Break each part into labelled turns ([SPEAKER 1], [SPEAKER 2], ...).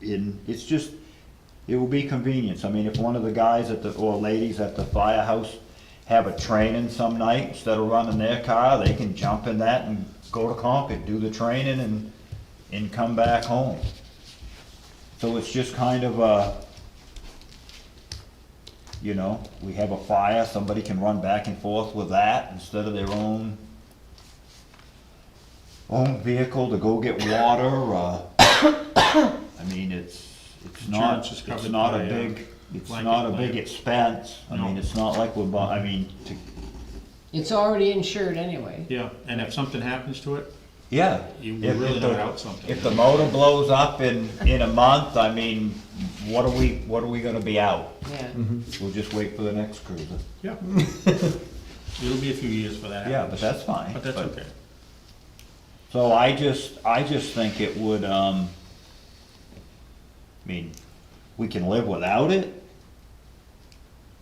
[SPEAKER 1] in, it's just, it will be convenience. I mean, if one of the guys at the, or ladies at the firehouse have a training some night, instead of running their car, they can jump in that and go to Concord, do the training and, and come back home. So it's just kind of a, you know, we have a fire, somebody can run back and forth with that instead of their own own vehicle to go get water, uh, I mean, it's, it's not,
[SPEAKER 2] Insurance is
[SPEAKER 1] it's
[SPEAKER 2] covered
[SPEAKER 1] not
[SPEAKER 2] by,
[SPEAKER 1] a
[SPEAKER 2] uh,
[SPEAKER 1] big, it's
[SPEAKER 2] blanket
[SPEAKER 1] not a
[SPEAKER 2] plan.
[SPEAKER 1] big expense. I mean,
[SPEAKER 2] No.
[SPEAKER 1] it's not like we're, bu- I mean, to,
[SPEAKER 3] It's already insured anyway.
[SPEAKER 2] Yeah, and if something happens to it,
[SPEAKER 1] yeah.
[SPEAKER 2] You
[SPEAKER 1] if- if
[SPEAKER 2] really
[SPEAKER 1] the-
[SPEAKER 2] not out something.
[SPEAKER 1] If the motor blows up in, in a month, I mean, what are we, what are we gonna be out?
[SPEAKER 3] Yeah.
[SPEAKER 4] Mm-hmm.
[SPEAKER 1] We'll just wait for the next cruiser.
[SPEAKER 2] yeah. It'll be a few years for that.
[SPEAKER 1] Yeah, but that's fine.
[SPEAKER 2] But that's okay.
[SPEAKER 1] So I just, I just think it would, um, I mean, we can live without it.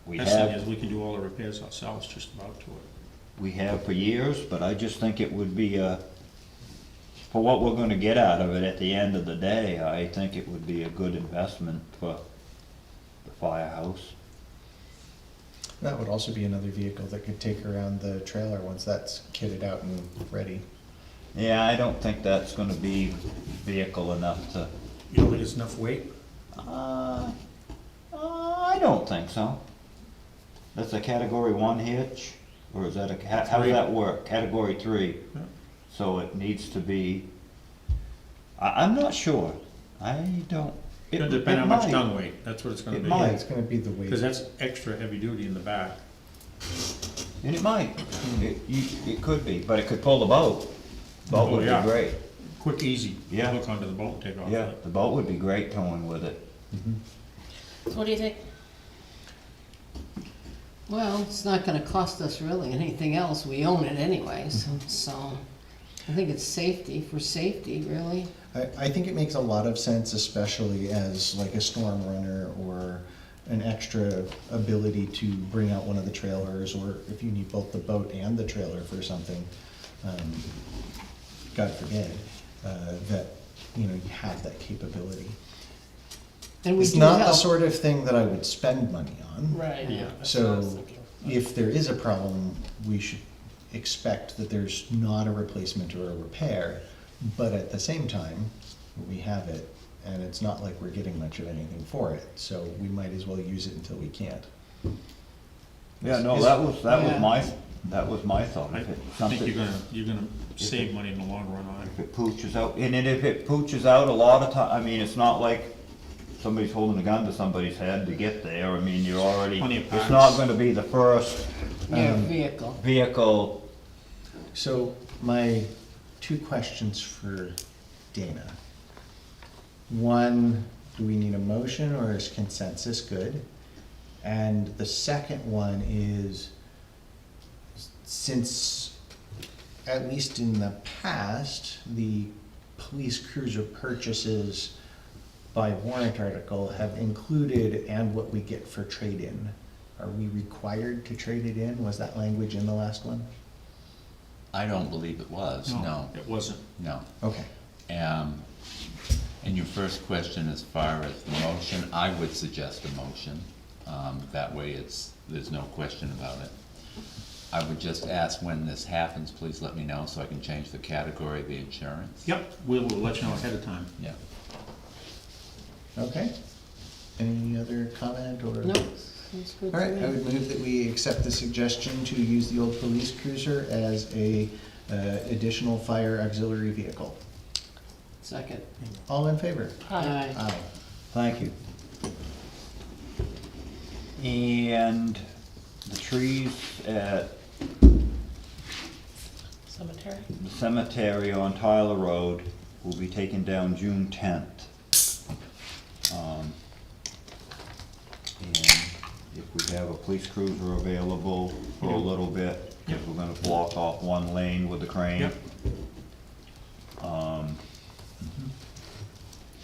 [SPEAKER 1] We
[SPEAKER 2] Best thing is,
[SPEAKER 1] have,
[SPEAKER 2] we can do all the repairs ourselves just about to it.
[SPEAKER 1] we have for years, but I just think it would be a, for what we're gonna get out of it at the end of the day, I think it would be a good investment for the firehouse.
[SPEAKER 4] That would also be another vehicle that could take around the trailer once that's kitted out and ready.
[SPEAKER 1] Yeah, I don't think that's gonna be vehicle enough to,
[SPEAKER 2] You don't think it's enough weight?
[SPEAKER 1] uh, uh, I don't think so. That's a category one hitch, or is that a, how, how does that work? Category three?
[SPEAKER 2] Yeah.
[SPEAKER 1] So it needs to be, I, I'm not sure. I don't. it-
[SPEAKER 2] It'll depend how much
[SPEAKER 1] might.
[SPEAKER 2] gun weight, that's what it's gonna
[SPEAKER 1] It
[SPEAKER 2] be.
[SPEAKER 4] Yeah,
[SPEAKER 1] might.
[SPEAKER 4] it's gonna be the weight.
[SPEAKER 2] Cause that's extra heavy duty in the back.
[SPEAKER 1] And it might.
[SPEAKER 2] Hmm.
[SPEAKER 1] It, you, it could be, but it could pull the boat. Boat
[SPEAKER 2] Oh,
[SPEAKER 1] would
[SPEAKER 2] yeah.
[SPEAKER 1] be great.
[SPEAKER 2] Quick, easy.
[SPEAKER 1] Yeah.
[SPEAKER 2] Hook onto the bolt and take off.
[SPEAKER 1] Yeah, the boat would be great towing with it.
[SPEAKER 3] What do you think? Well, it's not gonna cost us really anything else, we own it anyways,
[SPEAKER 4] Mm-hmm.
[SPEAKER 3] so, I think it's safety, for safety, really.
[SPEAKER 4] I, I think it makes a lot of sense, especially as like a storm runner or an extra ability to bring out one of the trailers, or if you need both the boat and the trailer for something, um, God forbid, uh, that, you know, you have that capability.
[SPEAKER 3] And we
[SPEAKER 4] It's
[SPEAKER 3] do
[SPEAKER 4] not the
[SPEAKER 3] help.
[SPEAKER 4] sort of thing that I would spend money on.
[SPEAKER 3] Right.
[SPEAKER 2] Yeah.
[SPEAKER 4] So if there is a problem, we should expect that there's not a replacement or a repair, but at the same time, we have it, and it's not like we're getting much of anything for it, so we might as well use it until we can't.
[SPEAKER 1] Yeah, no,
[SPEAKER 4] Is-
[SPEAKER 1] that was, that was
[SPEAKER 3] Yeah.
[SPEAKER 1] my, that was my thought.
[SPEAKER 2] I
[SPEAKER 1] If it-
[SPEAKER 2] think
[SPEAKER 1] something-
[SPEAKER 2] you're gonna, you're gonna save money in the long run on it.
[SPEAKER 1] If it pooches out, and then if it pooches out a lot of time, I mean, it's not like somebody's holding a gun to somebody's head to get there, I mean, you're already,
[SPEAKER 2] Plenty of
[SPEAKER 1] it's
[SPEAKER 2] parts.
[SPEAKER 1] not gonna be the first
[SPEAKER 3] Your
[SPEAKER 4] um,
[SPEAKER 3] vehicle,
[SPEAKER 1] vehicle,
[SPEAKER 4] So my two questions for Dana. One, do we need a motion or is consensus good? And the second one is, since, at least in the past, the police cruiser purchases by warrant article have included and what we get for trade-in. Are we required to trade it in? Was that language in the last one?
[SPEAKER 5] I don't believe it was, no,
[SPEAKER 2] It wasn't.
[SPEAKER 5] no.
[SPEAKER 4] Okay.
[SPEAKER 5] Um, and your first question as far as the motion, I would suggest a motion. Um, that way it's, there's no question about it. I would just ask when this happens, please let me know so I can change the category of the insurance.
[SPEAKER 2] Yep, we will let you know ahead of time.
[SPEAKER 5] Yeah.
[SPEAKER 4] Okay. Any other comment or?
[SPEAKER 3] no, sounds good
[SPEAKER 4] All
[SPEAKER 3] to
[SPEAKER 4] right,
[SPEAKER 3] me.
[SPEAKER 4] I would move that we accept the suggestion to use the old police cruiser as a uh, additional fire auxiliary vehicle.
[SPEAKER 3] Second.
[SPEAKER 4] All in favor?
[SPEAKER 3] Aye.
[SPEAKER 4] Aye.
[SPEAKER 1] thank you. And the trees at
[SPEAKER 6] Cemetery?
[SPEAKER 1] the cemetery on Tyler Road will be taken down June tenth. Um, And if we have a police cruiser available for a little bit, because we're gonna block off one lane with the crane.
[SPEAKER 2] Yep.
[SPEAKER 1] Um,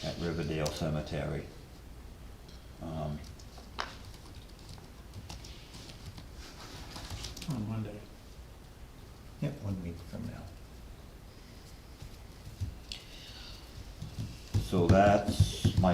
[SPEAKER 1] At Riverdale Cemetery. Um,
[SPEAKER 2] On Monday.
[SPEAKER 4] Yep, one week from now.
[SPEAKER 1] So that's